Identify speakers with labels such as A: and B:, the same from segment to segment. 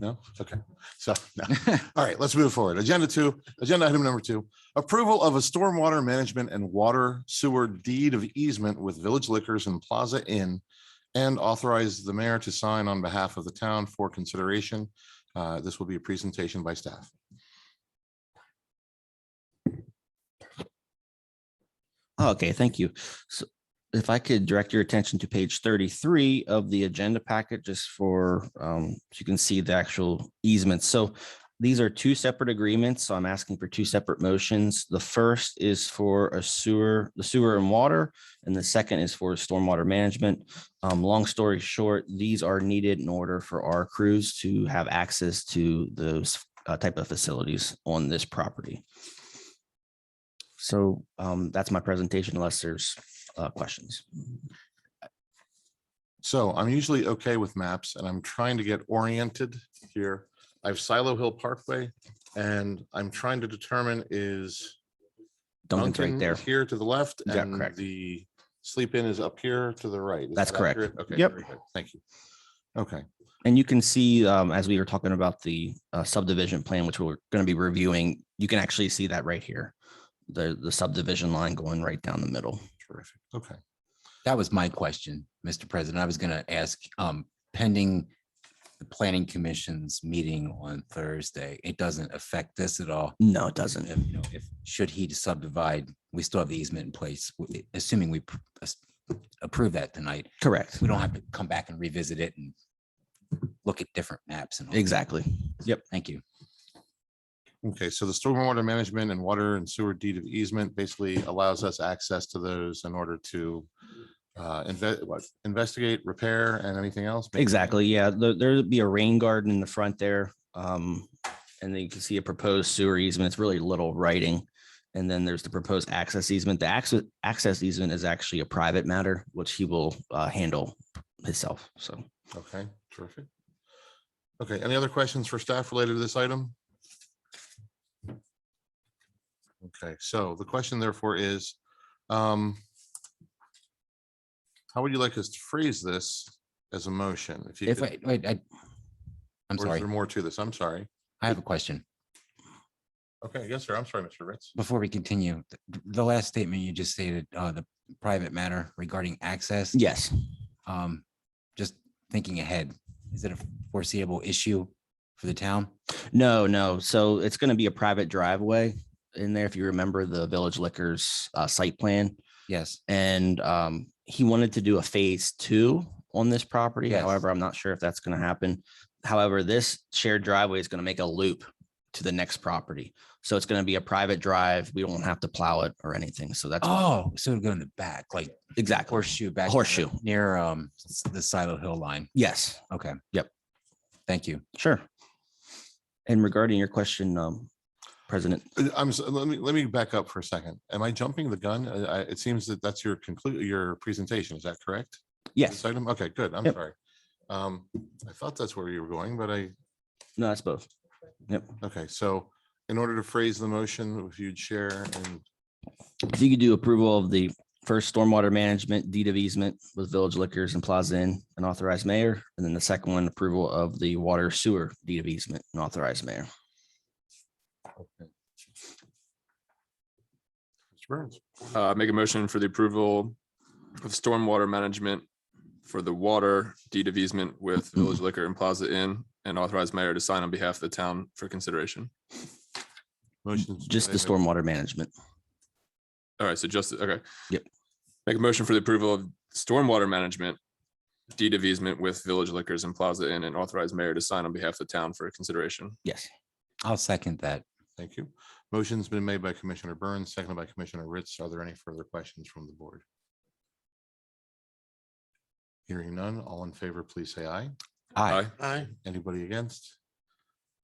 A: No? Okay. So, no. All right, let's move forward. Agenda two, agenda item number two, approval of a stormwater management and water sewer deed of easement with Village Liquors and Plaza Inn and authorize the mayor to sign on behalf of the town for consideration. Uh, This will be a presentation by staff.
B: Oh, Okay, thank you. So if I could direct your attention to page thirty-three of the agenda packet, just for, um, so you can see the actual easements. So these are two separate agreements, so I'm asking for two separate motions. The first is for a sewer, the sewer and water, and the second is for stormwater management. Um, long story short, these are needed in order for our crews to have access to those uh, type of facilities on this property. So um, that's my presentation unless there's uh, questions.
A: So I'm usually okay with maps and I'm trying to get oriented here. I have Silo Hill Parkway and I'm trying to determine is
B: Duncan's right
A: Dunkin'
B: there.
A: is Here to the left
B: Yeah,
A: and
B: correct.
A: the sleep in is up here to the right. Is
B: That's
A: that
B: correct.
A: accurate? Okay,
B: Yep.
A: very good. Thank you. Okay,
B: And you can see, um, as we were talking about the uh, subdivision plan, which we're going to be reviewing, you can actually see that right here. The, the subdivision line going right down the middle.
A: terrific. Okay,
C: That was my question, Mr. President. I was going to ask, um, pending the planning commission's meeting on Thursday, it doesn't affect this at all.
B: No, it doesn't.
C: If, you know, if, should he subdivide, we still have the easement in place, w- assuming we pr- as- approve that tonight.
B: Correct.
C: We don't have to come back and revisit it and look at different maps and. all.
B: Exactly. Yep.
C: Thank you.
A: okay. So the stormwater management and water and sewer deed of easement basically allows us access to those in order to uh, inve- what, investigate, repair and anything else. Maybe-
B: Exactly. Yeah. There, there'd be a rain garden in the front there. Um, and then you can see a proposed sewer easement. It's really little writing. And then there's the proposed access easement. The access, access easement is actually a private matter, which he will, uh, handle himself. So.
A: Okay, terrific. Okay, any other questions for staff related to this item? Okay, so the question therefore is, um, how would you like us to phrase this as a motion? If you,
C: If,
A: could-
C: wait, wait, I, I'm
A: or is
C: sorry,
A: there more to this? I'm sorry.
C: I have a question.
A: Okay, yes, sir. I'm sorry, Mr. Ritz.
C: Before we continue, th- the last statement you just stated, uh, the private matter regarding access.
B: Yes.
C: um, just thinking ahead, is it a foreseeable issue for the town?
B: No, no. So it's going to be a private driveway in there. If you remember the Village Liquors uh, site plan,
C: Yes.
B: and um, he wanted to do a phase two on this property.
C: Yes.
B: However, I'm not sure if that's going to happen. However, this shared driveway is going to make a loop to the next property, so it's going to be a private drive. We won't have to plow it or anything. So that's
C: Oh, so it'll go in the back, like
B: exactly
C: horseshoe back.
B: Horseshoe.
C: Near, um, s- the Silo Hill line.
B: yes.
C: Okay.
B: Yep.
C: Thank you.
B: Sure. And regarding your question, um, President,
A: Uh, I'm, so- let me, let me back up for a second. Am I jumping the gun? Uh, I, it seems that that's your conclude, your presentation. Is that correct?
B: yes,
A: This item? Okay, good. I'm
B: Yep.
A: sorry. Um, I thought that's where you were going, but I,
B: no, that's both. Yep.
A: Okay, so in order to phrase the motion, if you'd share and,
B: if you could do approval of the first stormwater management deed of easement with Village Liquors and Plaza Inn and authorized mayor, and then the second one, approval of the water sewer deed of easement and authorized mayor.
A: Mr. Burns,
D: Uh, make a motion for the approval of stormwater management for the water deed of easement with Village Liquor and Plaza Inn and authorize mayor to sign on behalf of the town for consideration.
A: motions.
B: Just the stormwater management.
D: All right, so just, okay.
B: Yep.
D: Make a motion for the approval of stormwater management deed of easement with Village Liquors and Plaza Inn and authorize mayor to sign on behalf of the town for consideration.
B: Yes.
C: I'll second that.
A: Thank you. Motion's been made by Commissioner Burns, seconded by Commissioner Ritz. Are there any further questions from the board? Hearing none, all in favor, please say aye.
C: Aye.
A: Aye. Anybody against?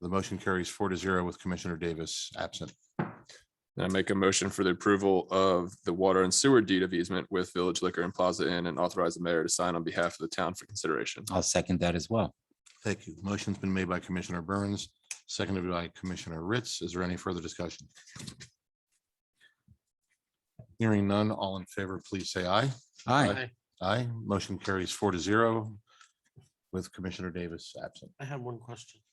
A: The motion carries four to zero with Commissioner Davis absent.
D: And I make a motion for the approval of the water and sewer deed of easement with Village Liquor and Plaza Inn and authorize the mayor to sign on behalf of the town for consideration.
C: I'll second that as well.
A: Thank you. Motion's been made by Commissioner Burns, seconded by Commissioner Ritz. Is there any further discussion? Hearing none, all in favor, please say aye.
C: Aye.
A: Aye. Motion carries four to zero with Commissioner Davis absent.
E: I have one question.